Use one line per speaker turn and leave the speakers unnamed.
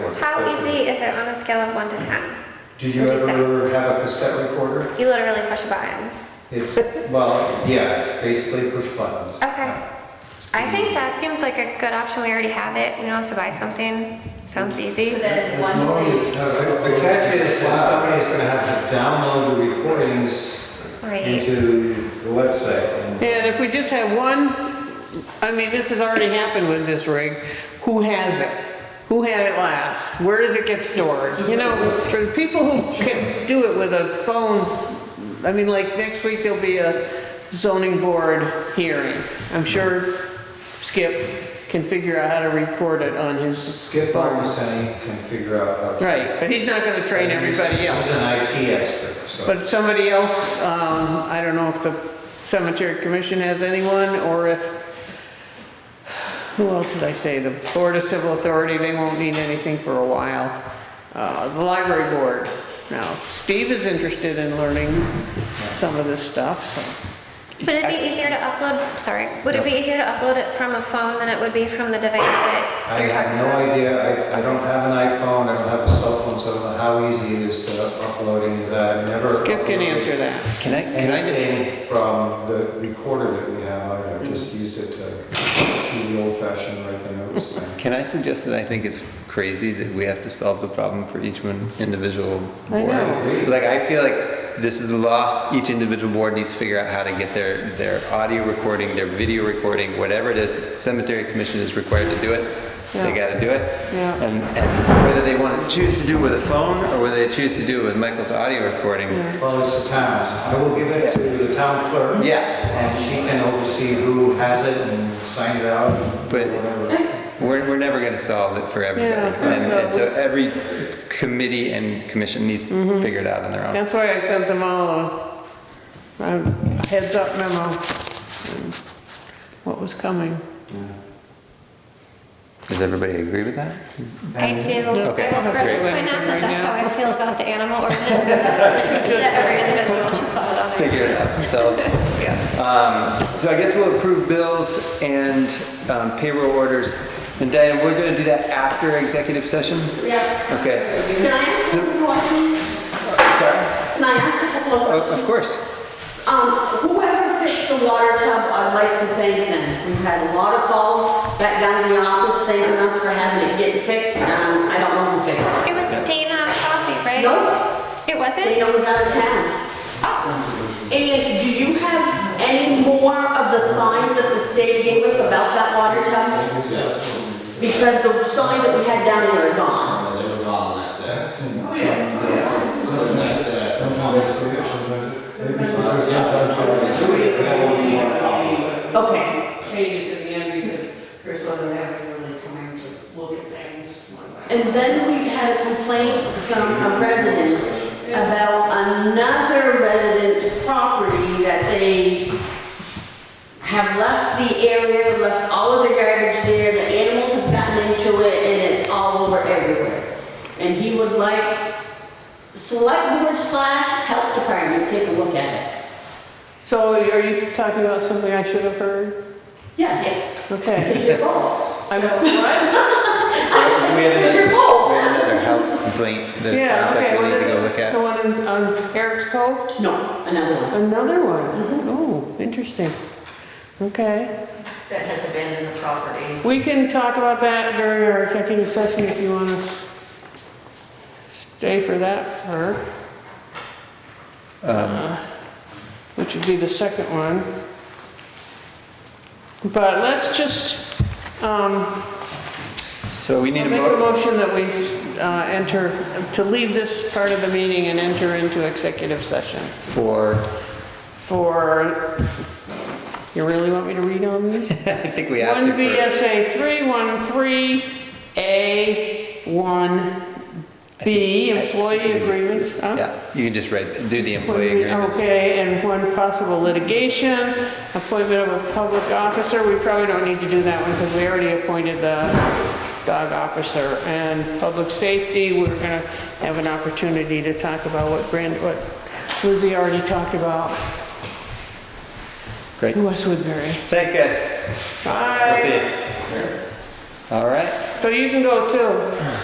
complete is it on a scale of one to ten?
Did you
What'd you
ever have a cassette recorder?
You literally push a button.
It's, well, yeah, it's basically push buttons.
Okay. Oh, I think that seems like a good option. We already have it. We don't have to buy something. Sounds easy.
So then
As long
once
as-
The catch is that somebody's gonna have to download the recordings
Right.
into the website. and-
And if we just have one, I mean, this has already happened with this rig, who has it? Who had it last? Where does it get stored? You know, for the people who can do it with a phone, I mean, like, next week there'll be a zoning board hearing. I'm sure Skip can figure out how to record it on his
Skip
phone.
Larson can figure out how. to-
Right, but he's not gonna train
He's-
everybody else.
He's an IT expert, so.
But somebody else, um, I don't know if the cemetery commission has anyone, or if, who else did I say? The Board of Civil Authority, they won't need anything for a while. Uh, the library board, now, Steve is interested in learning some of this stuff, so.
Would it be easier to upload? Sorry. Would it be easier to upload it from a phone than it would be from the device that
I
you're
have
talking
no
about?
idea, I, I don't have an iPhone, I don't have a cell phone, so I don't know how easy it is to uploading that, I've never.
Skip can
uploaded
answer that.
Can I, can I just,
Anything from the recorder that we have, I have just used it to do the old fashioned write the notes thing.
can I suggest that I think it's crazy that we have to solve the problem for each one individual
I
board?
know.
Like, I feel like this is the law, each individual board needs to figure out how to get their, their audio recording, their video recording, whatever it is, cemetery commission is required to do it, they
Yeah.
gotta do it.
Yeah.
And, and whether they wanna choose to do it with a phone, or whether they choose to do it with Michael's audio recording,
Well, it's the town's, I will give it to the town clerk.
Yeah.
And she can oversee who has it and sign it out and
But-
whatever.
We're, we're never gonna solve it for everybody.
Yeah,
And,
no,
and so
we- Mm-hmm.
every committee and commission needs to figure it out on their own.
That's why I sent them all a a heads up memo, and what was coming.
Does everybody agree with that?
I do.
Okay,
I will further
great.
point out that that's how
Right
I feel about the animal ordinance. that every individual should solve it on their
Figure it out themselves.
own. Yeah.
Um, so I guess we'll approve bills and um, payroll orders. And Diane, we're gonna do that after executive session?
they, yeah.
Okay,
Can I ask a couple questions?
sorry?
Can I ask a couple of questions?
Of, of course.
Um, whoever fixed the water tub, I'd like to thank them. We've had a lot of calls back down in the office thanking us for having it get fixed, and I don't know who fixed
It
it.
was Dana Coffee, right?
No,
It wasn't?
Dana was out of town.
Oh,
And do you have any more of the signs that the state gave us about that water tub? Because the signs that we had down there are gone. Okay,
change it to the end because Chris wasn't having really time to look at things one by
and then we had a complaint from a resident about another resident's property that they have left the area, left all of their garbage there, the animals have gotten into it, and it's all over everywhere. And he would like select board slash health department to take a look at it.
So are you talking about something I should have heard?
Yes.
Okay.
Because you're both.
I'm, what?
We have
Because you're
another, we
both.
have another health complaint
Yeah,
that sounds
okay.
like we
what
need to
is
go
it?
look
The
at.
one in- on Eric's Cove?
No, another one.
Another
Mm-hmm.
one? Oh, interesting. Okay.
That has abandoned the property.
We can talk about that during our executive session if you want to stay for that part.
Um.
Uh, Which would be the second one. But let's just, um,
So we need
make
a
a
motion.
motion that we uh, enter, to leave this part of the meeting and enter into executive session
for,
for, you really want me to read on these?
I think we have to
One
for.
VSA three one three A one B, employee agreements, huh?
Yeah, you can just write, do the
One
employee
B-
agreements.
Okay, and one possible litigation, appointment of a public officer, we probably don't need to do that one because we already appointed the dog officer. And public safety, we're gonna have an opportunity to talk about what Brand, what Lizzie already talked about,
Great.
West Woodbury.
Thanks, guys. We'll see
Bye,
you. All right.
so you can go too.